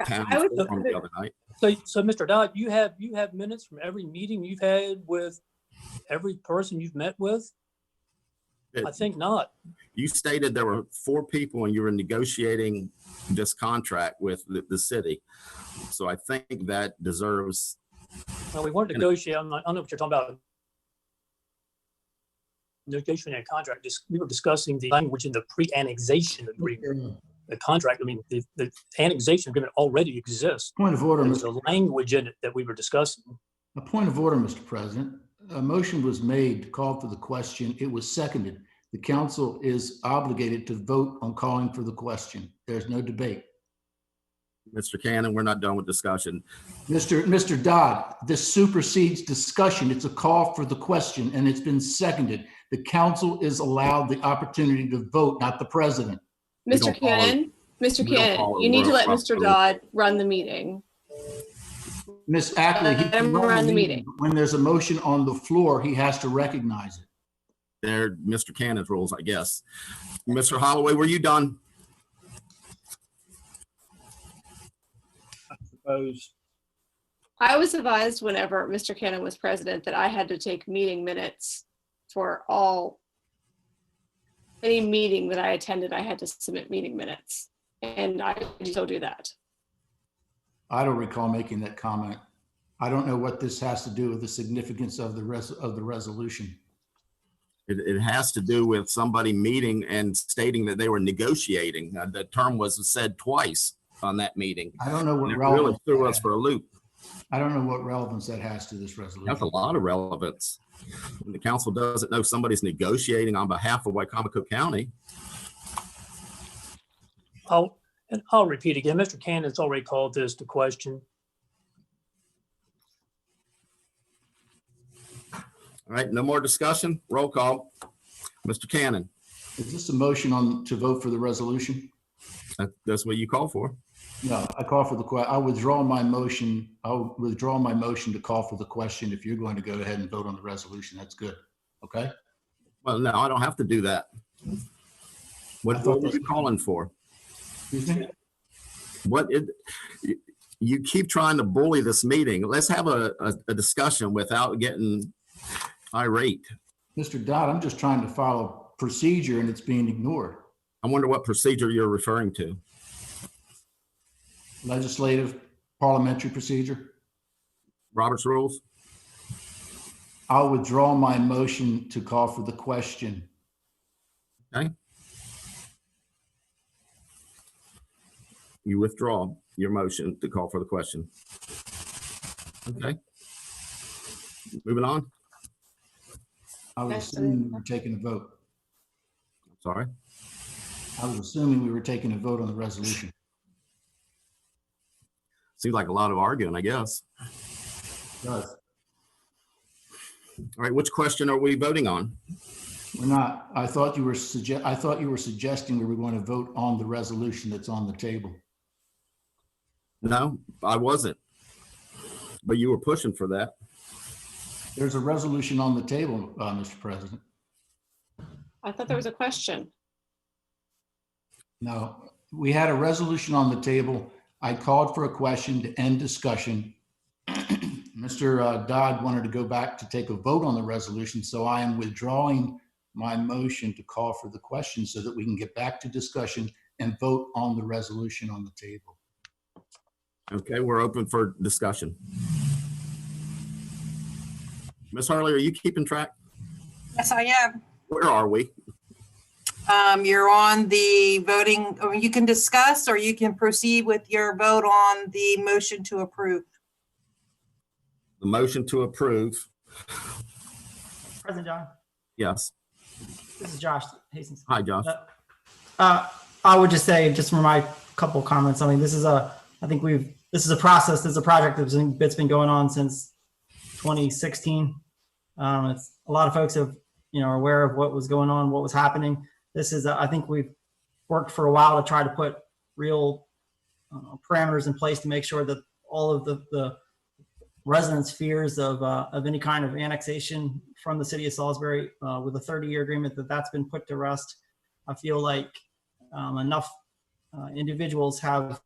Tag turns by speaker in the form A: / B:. A: pounds
B: I would
A: from the
B: prefer-
A: other night.
C: So, so Mr. Dodd, you have, you have minutes from every meeting you've had with every person you've met with? I think not.
A: You stated there were four people and you were negotiating this contract with the, the city. So I think that deserves,
C: No, we weren't
A: And-
C: negotiating, I'm not- I don't know what you're talking about. Negotiating a contract, just, we were discussing the language in the pre-annexation agreement. The contract, I mean, the, the annexation agreement already exists.
D: Point of order,
C: There's a
D: Mr.
C: language in it that we were discussing.
D: a point of order, Mr. President. A motion was made, to call for the question. It was seconded. The council is obligated to vote on calling for the question. There's no debate.
A: Mr. Cannon, we're not done with discussion.
D: Mr. Mr. Dodd, this supersedes discussion. It's a call for the question and it's been seconded. The council is allowed the opportunity to vote, not the president.
A: We
E: Mr.
A: don't follow-
E: Cannon, Mr.
A: we don't follow
E: Cannon, you need to
A: Royal
E: let
A: Rumble.
E: Mr. Dodd run the meeting.
D: Ms. Ackley, he
E: Let
D: can
E: him
D: run
E: run
D: the
E: the
D: meeting. but When there's a motion on the floor, he has to recognize it.
A: They're Mr. Cannon's rules, I guess. Mr. Holloway, were you done?
F: Opposed.
E: I was advised whenever Mr. Cannon was president that I had to take meeting minutes for all any meeting that I attended, I had to submit meeting minutes. And I still do that.
D: I don't recall making that comment. I don't know what this has to do with the significance of the res, of the resolution.
A: It, it has to do with somebody meeting and stating that they were negotiating. Uh, That term was said twice on that meeting.
D: I don't know
A: And
D: what
A: It really
D: relevance,
A: threw us for a loop.
D: I don't know what relevance that has to this
A: That's a
D: resolution.
A: lot of relevance. When the council doesn't know somebody's negotiating on behalf of Wycomico County,
C: I'll, and I'll repeat again, Mr. Cannon's already called this to question.
A: all right, no more discussion, roll call. Mr. Cannon,
D: Is this a motion on, to vote for the resolution?
A: that- that's what you call for.
D: No, I call for the que, I withdraw my motion, I'll withdraw my motion to call for the question. If you're going to go ahead and vote on the resolution, that's good. Okay?
A: Well, no, I don't have to do that.
D: I
A: What what
D: thought
A: were you
D: that's-
A: calling for?
D: Excuse me?
A: What, it- you- you keep trying to bully this meeting. Let's have a, a- a discussion without getting irate.
D: Mr. Dodd, I'm just trying to follow procedure and it's being ignored.
A: I wonder what procedure you're referring to.
D: Legislative parliamentary procedure.
A: Robert's rules?
D: I'll withdraw my motion to call for the question.
A: you withdraw your motion to call for the question. Okay. Moving on,
D: I was
E: Yes, I-
D: assuming we were taking a vote.
A: sorry.
D: I was assuming we were taking a vote on the resolution.
A: Seems like a lot of arguing, I guess.
D: Does.
A: All right, which question are we voting on?
D: We're not, I thought you were suggest, I thought you were suggesting we were going to vote on the resolution that's on the table.
A: No, I wasn't. But you were pushing for that.
D: There's a resolution on the table, uh, Mr. President.
E: I thought there was a question.
D: No, we had a resolution on the table. I called for a question to end discussion. Mr. uh, Dodd wanted to go back to take a vote on the resolution, so I am withdrawing my motion to call for the question so that we can get back to discussion and vote on the resolution on the table.
A: Okay, we're open for discussion. Ms. Harley, are you keeping track?
G: Yes, I am.
A: Where are we?
G: Um, You're on the voting, or you can discuss, or you can proceed with your vote on the motion to approve.
A: The motion to approve,
H: President John,
A: yes.
H: this is Josh Hastings.
A: Hi, Josh.
H: Uh, I would just say, just from my couple of comments, I mean, this is a, I think we've, this is a process, this is a project that's been, that's been going on since 2016. Um, it's, a lot of folks have, you know, are aware of what was going on, what was happening. This is, I think we've worked for a while to try to put real uh, parameters in place to make sure that all of the, the residents' fears of, uh, of any kind of annexation from the city of Salisbury, uh, with a 30-year agreement, that that's been put to rest. I feel like um, enough uh, individuals have